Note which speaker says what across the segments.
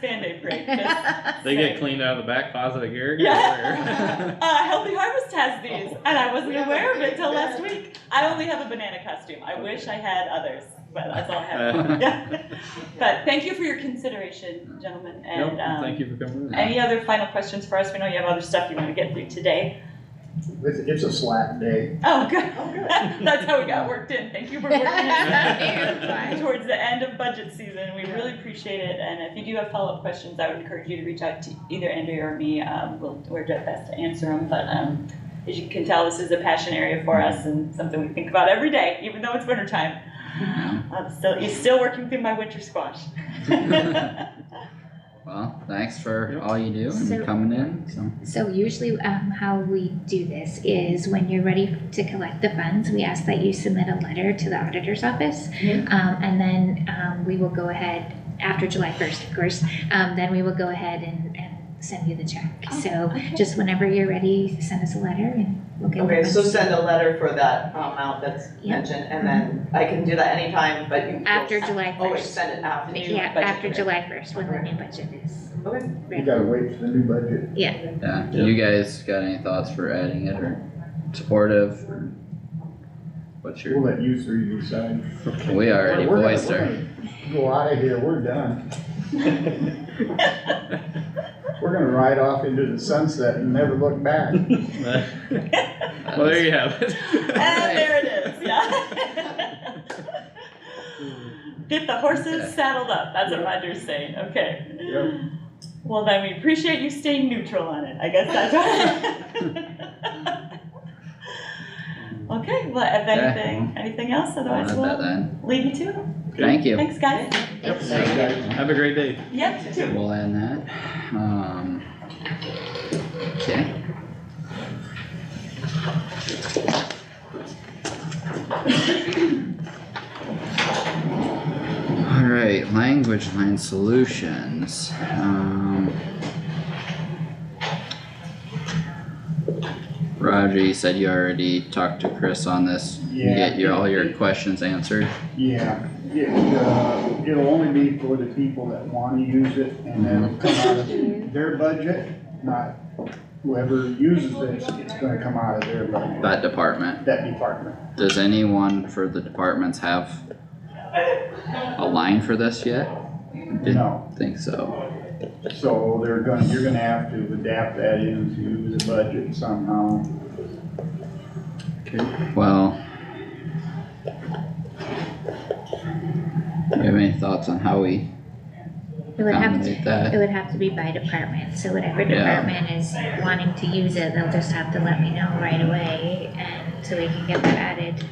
Speaker 1: Band-Aid break. Just
Speaker 2: They get
Speaker 1: say-
Speaker 2: cleaned out of the back closet of Garrick.
Speaker 1: Yeah. uh, Healthy Harvest has these,
Speaker 2: Oh.
Speaker 1: and I wasn't
Speaker 3: We have
Speaker 1: aware
Speaker 3: a
Speaker 1: of it till
Speaker 3: banana.
Speaker 1: last week. I only have a banana costume. I wish I had others, but that's all I
Speaker 2: Uh.
Speaker 1: have. Yeah. But thank you for your consideration, gentlemen.
Speaker 2: Yep,
Speaker 1: And um,
Speaker 2: thank you for coming. in.
Speaker 1: any other final questions for us? We know you have other stuff you want to get through today.
Speaker 4: It's, it's a slack day.
Speaker 1: Oh, good.
Speaker 3: Oh, good.
Speaker 1: that's how we got worked in. Thank you for working in.
Speaker 2: Fine.
Speaker 1: Towards the end of budget season, we really appreciate it. And if you do have follow-up questions, I would encourage you to reach out to either Andrea or me. Um, we'll, we're at best to answer them. But um, as you can tell, this is a passion area for us and something we think about every day, even though it's winter time. I'm still, you're still working through my winter squash.
Speaker 5: Well, thanks for
Speaker 2: Yep.
Speaker 5: all you do
Speaker 6: So-
Speaker 5: and coming in, so.
Speaker 6: So usually um, how we do this is when you're ready to collect the funds, we ask that you submit a letter to the auditor's office.
Speaker 1: Mhm.
Speaker 6: Um, and then um, we will go ahead, after July 1st, of course, um, then we will go ahead and, and send you the check. So just whenever you're ready, send us a letter and we'll get the
Speaker 3: Okay, so
Speaker 6: funds.
Speaker 3: send a letter for that amount that's
Speaker 6: Yeah.
Speaker 3: mentioned, and then I can do that anytime, but you. will
Speaker 6: After July 1st.
Speaker 3: Always Oh, send it after. the
Speaker 6: Yeah,
Speaker 3: budget
Speaker 6: after
Speaker 3: period.
Speaker 6: July 1st, when the new budget is.
Speaker 3: Okay.
Speaker 4: You gotta wait for the new budget.
Speaker 5: Yeah, you guys got any thoughts for adding it or supportive or? What's
Speaker 4: We'll
Speaker 5: your,
Speaker 4: let you three decide.
Speaker 5: we already
Speaker 4: We're- we're
Speaker 5: voiced
Speaker 4: gonna-
Speaker 5: her,
Speaker 4: we're gonna Go out of here, we're done. We're gonna ride off into the sunset and never look back.
Speaker 2: well, there you have it.
Speaker 1: And there it is, yeah. Get the horses saddled up, that's what Roger's saying, okay.
Speaker 4: Yep.
Speaker 1: Well, then we appreciate you staying neutral on it, I guess that's right. Okay, well, if anything, anything else,
Speaker 5: I'll
Speaker 1: otherwise
Speaker 5: add that
Speaker 1: we'll
Speaker 5: then,
Speaker 1: leave you to it.
Speaker 5: thank you.
Speaker 1: Thanks, guys.
Speaker 2: Yep.
Speaker 6: Thanks.
Speaker 2: Have a great day.
Speaker 1: Yep, you too.
Speaker 5: We'll add that, um. Okay, alright, language line solutions, um. Roger, you said you already talked to Chris on this, you
Speaker 4: Yeah.
Speaker 5: get your, all your questions answered?
Speaker 4: Yeah, it, uh, it'll only be for the people that wanna use it and then it'll come out of their budget, not whoever uses this, it's gonna come out of their budget,
Speaker 5: That department,
Speaker 4: that department.
Speaker 5: does anyone for the departments have a line for this yet?
Speaker 4: No,
Speaker 5: Think so,
Speaker 4: so they're gonna, you're gonna have to adapt that into the budget somehow.
Speaker 5: well. Do you have any thoughts on how we
Speaker 6: It would have to,
Speaker 5: accommodate that?
Speaker 6: it would have to be by department, so whatever
Speaker 5: Yeah.
Speaker 6: department is wanting to use it, they'll just have to let me know right away and so we can get that added.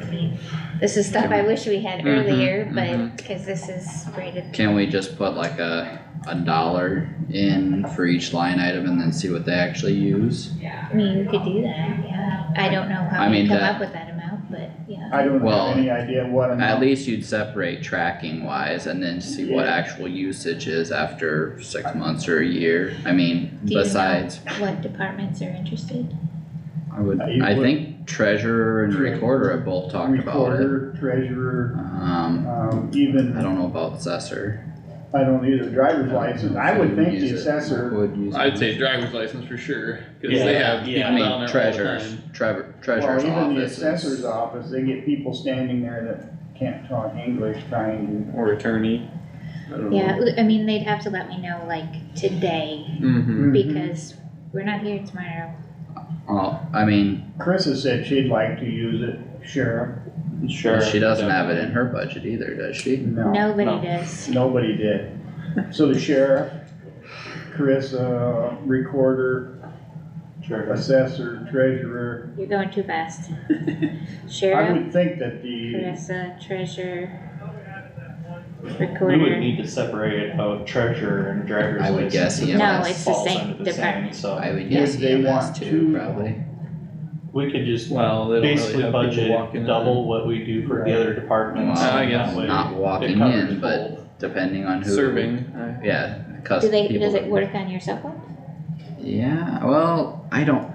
Speaker 6: I mean, This is stuff I wish we had
Speaker 5: Mhm,
Speaker 6: earlier,
Speaker 5: mhm.
Speaker 6: but, cause this is rated,
Speaker 5: Can we just put like a, a dollar in for each line item and then see what they actually use?
Speaker 6: I mean, you could do that, yeah. I don't know
Speaker 5: I
Speaker 6: how you
Speaker 5: mean,
Speaker 6: come
Speaker 5: that-
Speaker 6: up with that amount, but, yeah.
Speaker 4: I don't
Speaker 5: Well,
Speaker 4: have any idea what
Speaker 5: At
Speaker 4: amount,
Speaker 5: least you'd separate tracking wise and then see what
Speaker 4: Yeah.
Speaker 5: actual usage is after six months or a year, I mean,
Speaker 6: Do you know?
Speaker 5: besides.
Speaker 6: What departments are interested?
Speaker 5: I would,
Speaker 4: Uh, you
Speaker 5: I
Speaker 4: would-
Speaker 5: think treasurer and recorder have both talked about it.
Speaker 4: recorder, treasurer,
Speaker 5: Um,
Speaker 4: um,
Speaker 5: I
Speaker 4: even,
Speaker 5: don't know about assessor.
Speaker 4: I don't either, driver's license, I would think the assessor,
Speaker 5: Would use.
Speaker 2: I'd
Speaker 5: it.
Speaker 2: say driver's license for sure, cause
Speaker 7: Yeah.
Speaker 2: they have people
Speaker 7: Yeah.
Speaker 5: I
Speaker 2: down there all
Speaker 5: mean,
Speaker 2: the
Speaker 5: treasurer's,
Speaker 2: time.
Speaker 5: Trevor,
Speaker 4: or
Speaker 5: treasurer's
Speaker 4: even the
Speaker 5: office.
Speaker 4: assessor's
Speaker 5: is-
Speaker 4: office, they get people standing there that can't talk English trying to
Speaker 2: Or attorney. I don't
Speaker 5: Mm-hmm.
Speaker 2: know.
Speaker 6: Yeah, I mean, they'd have to let me know like today,
Speaker 2: Mm-hmm.
Speaker 6: because we're not here tomorrow.
Speaker 5: Well, I mean,
Speaker 4: Chris has said she'd like to use it, Sheriff.
Speaker 7: Sure.
Speaker 5: she doesn't have it in her budget either, does she?
Speaker 4: No,
Speaker 6: Nobody
Speaker 7: No.
Speaker 6: does.
Speaker 4: nobody did. So the sheriff, Chris, uh, recorder,
Speaker 7: Sure.
Speaker 4: assessor, treasurer.
Speaker 6: You're going too fast.
Speaker 4: I
Speaker 6: Sheriff,
Speaker 4: would think that the,
Speaker 6: Carissa, treasurer,
Speaker 7: We would
Speaker 6: recorder.
Speaker 7: need to separate out treasurer and driver's
Speaker 5: I would guess
Speaker 7: license. because
Speaker 5: No,
Speaker 7: that
Speaker 6: it's the
Speaker 7: falls
Speaker 6: same
Speaker 7: under the
Speaker 6: department.
Speaker 7: So
Speaker 5: I would
Speaker 4: If
Speaker 5: guess
Speaker 4: they
Speaker 5: EMS
Speaker 4: want
Speaker 5: too,
Speaker 4: to-
Speaker 5: probably.
Speaker 7: we could just
Speaker 2: Well, they don't really
Speaker 7: basically
Speaker 2: have people walking
Speaker 7: budget
Speaker 2: in.
Speaker 7: double what we do for the other departments.
Speaker 5: Well,
Speaker 2: I
Speaker 7: and
Speaker 2: guess
Speaker 7: that way
Speaker 5: Not
Speaker 7: It
Speaker 5: walking
Speaker 7: covers
Speaker 5: in, but
Speaker 7: both.
Speaker 5: depending on who.
Speaker 2: Serving.
Speaker 5: Yeah, cus-
Speaker 6: Do they,
Speaker 5: people
Speaker 6: does
Speaker 5: that
Speaker 6: it work on your cell phone?
Speaker 5: Yeah, well, I don't,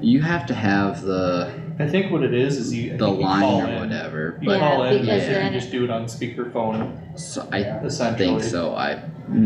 Speaker 5: you have to have the,
Speaker 7: I think what it is, is you. I
Speaker 5: the
Speaker 7: think you call
Speaker 5: line
Speaker 7: in.
Speaker 5: or whatever,
Speaker 7: You
Speaker 5: but
Speaker 6: Yeah,
Speaker 7: call in,
Speaker 6: because
Speaker 7: and you
Speaker 6: then-
Speaker 7: just do it on speakerphone
Speaker 5: so I
Speaker 7: essentially.
Speaker 5: think so, I